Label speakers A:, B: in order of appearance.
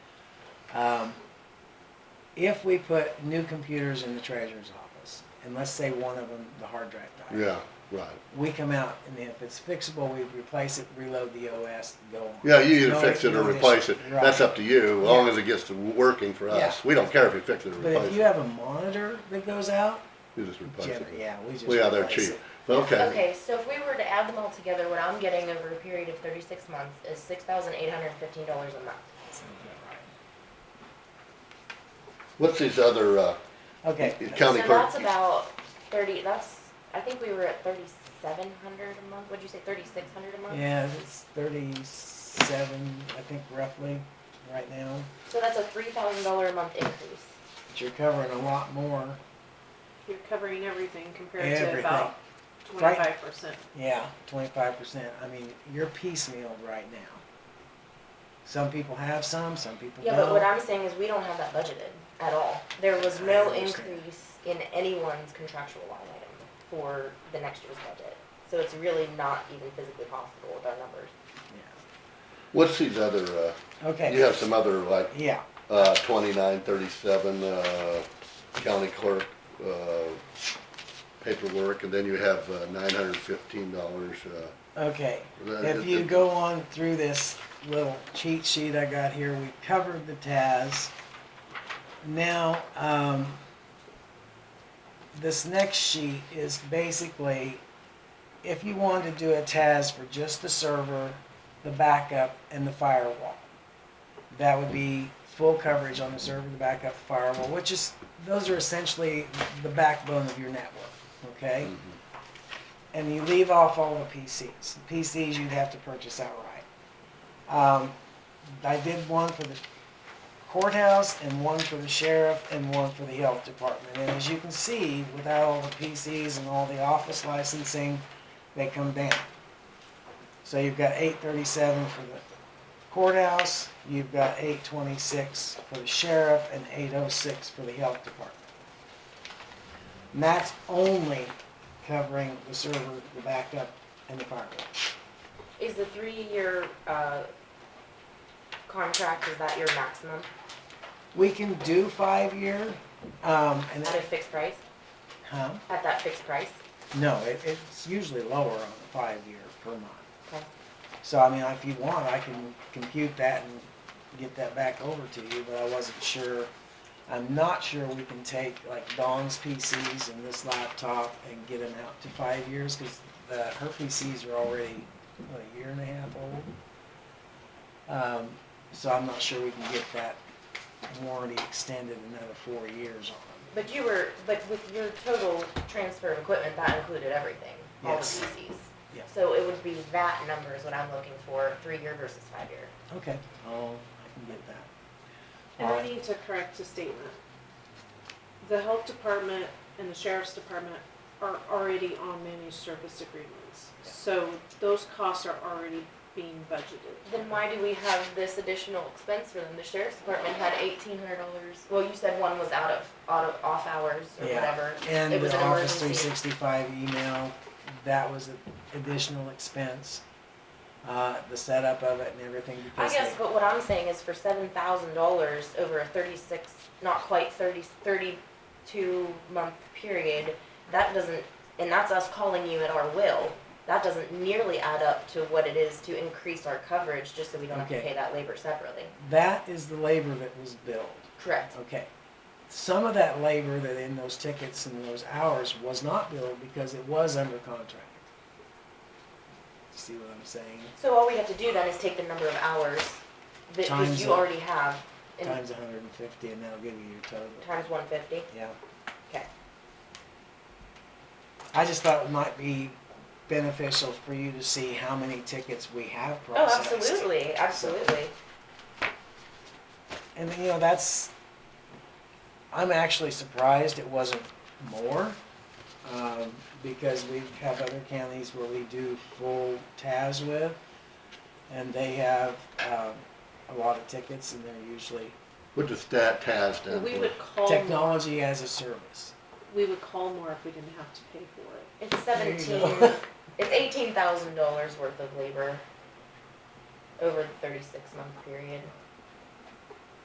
A: Um, if we put new computers in the treasurer's office, and let's say one of them, the hard drive dies.
B: yeah, right.
A: We come out, and if it's fixable, we replace it, reload the OS, go on.
B: Yeah, you either
A: No-
B: fix it
A: no
B: or replace
A: issue.
B: it. That's
A: Right.
B: up to you, as long as it gets to working for us.
A: Yeah.
B: We don't care if you fix it or
A: But if
B: replace
A: you
B: it.
A: have a monitor that goes out,
B: You just replace
A: gen-
B: it.
A: yeah, we just.
B: Well, yeah, they're
A: replace
B: cheap.
A: it.
B: Okay,
C: Okay, so if we were to add them all together, what I'm getting over a period of thirty-six months is six thousand eight hundred and fifteen dollars a month.
A: Sounds about
B: what's these other, uh,
A: right.
B: It
A: Okay,
B: counts- County
C: So
B: clerk.
C: that's about thirty, that's, I think we were at thirty-seven hundred a month, would you say thirty-six hundred a month?
A: yeah, it's thirty-seven, I think roughly, right now.
C: So that's a three thousand dollar a month increase.
A: But you're covering a lot more,
D: You're covering everything compared to
A: everything.
D: about
A: Right.
D: twenty-five percent.
A: Yeah, twenty-five percent. I mean, you're piecemealed right now. Some people have some, some people
C: Yeah, but what
A: don't.
C: I'm saying is we don't have that budgeted at all. There was no
A: I understand.
C: increase in anyone's contractual line item for the next year's budget. So it's really not even physically possible with our numbers.
B: what's these other, uh, you
A: Okay,
B: have some other like,
A: yeah,
B: uh, twenty-nine, thirty-seven, uh, county clerk, uh, paperwork, and then you have, uh, nine hundred and fifteen dollars, uh,
A: okay.
B: That-
A: If
B: that-
A: you
B: that-
A: go on through this little cheat sheet I got here, we covered the TAS. Now, um, this next sheet is basically, if you want to do a TAS for just the server, the backup, and the firewall. That would be full coverage on the server, the backup, firewall, which is, those are essentially the backbone of your network, okay?
B: Mm-hmm.
A: And you leave off all the PCs. The PCs you'd have to purchase outright. Um, I did one for the courthouse and one for the sheriff and one for the health department. And as you can see, without all the PCs and all the office licensing, they come down. So you've got eight thirty-seven for the courthouse, you've got eight twenty-six for the sheriff and eight oh six for the health department. And that's only covering the server, the backup, and the firewall.
C: Is the three-year, uh, contract, is that your maximum
A: We can do five-year, um, and,
C: at a fixed price,
A: huh?
C: at that fixed price?
A: No, it, it's usually lower on the five-year per month.
C: Okay.
A: So, I mean, if you want, I can compute that and get that back over to you, but I wasn't sure. I'm not sure we can take like Dawn's PCs and this laptop and get them out to five years, cause the, her PCs are already, what, a year and a half old. Um, so I'm not sure we can get that warranty extended another four years on
C: But you were, but with your total transfer of equipment, that included everything, all the
A: Yes.
C: PCs.
A: Yeah.
C: So it would be that number is what I'm looking for, three-year versus five-year.
A: them. Okay, oh, I can get that.
D: And I
A: Alright.
D: need to correct a statement. The health department and the sheriff's department are already on managed service agreements. So those costs are already being budgeted.
C: Then why do we have this additional expense for them? The sheriff's department had eighteen hundred dollars, well, you said one was out of, out of, off hours or
A: Yeah.
C: whatever.
A: And
C: It was
A: the
C: an
A: Office three
C: emergency.
A: sixty-five email, that was an additional expense. Uh, the setup of it and everything
C: I
A: because
C: guess,
A: they-
C: but what I'm saying is for seven thousand dollars over a thirty-six, not quite thirty, thirty-two month period, that doesn't, and that's us calling you at our will, that doesn't nearly add up to what it is to increase our coverage, just so we don't have to
A: Okay.
C: pay that labor separately.
A: that is the labor that was billed,
C: Correct.
A: okay. Some of that labor that in those tickets and those hours was not billed because it was under contract. See what I'm saying?
C: So all we have to do then is take the number of hours that, that
A: Times
C: you
A: the-
C: already have, and
A: Times hundred and fifty and that'll give you your total,
C: times one fifty.
A: yeah.
C: Okay.
A: I just thought it might be beneficial for you to see how many tickets we have
C: Oh,
A: processed.
C: absolutely, absolutely.
A: And you know, that's, I'm actually surprised it wasn't more, um, because we have other counties where we do full TAS with, and they have, um, a lot of tickets, and they're usually
B: what does stat TAS stand
D: We
B: for?
D: would call, more-
A: technology as a service.
D: we would call more if we didn't have to pay for it.
C: It's
A: There you
C: seventeen,
A: go.
C: it's eighteen thousand dollars worth of labor over the thirty-six month period.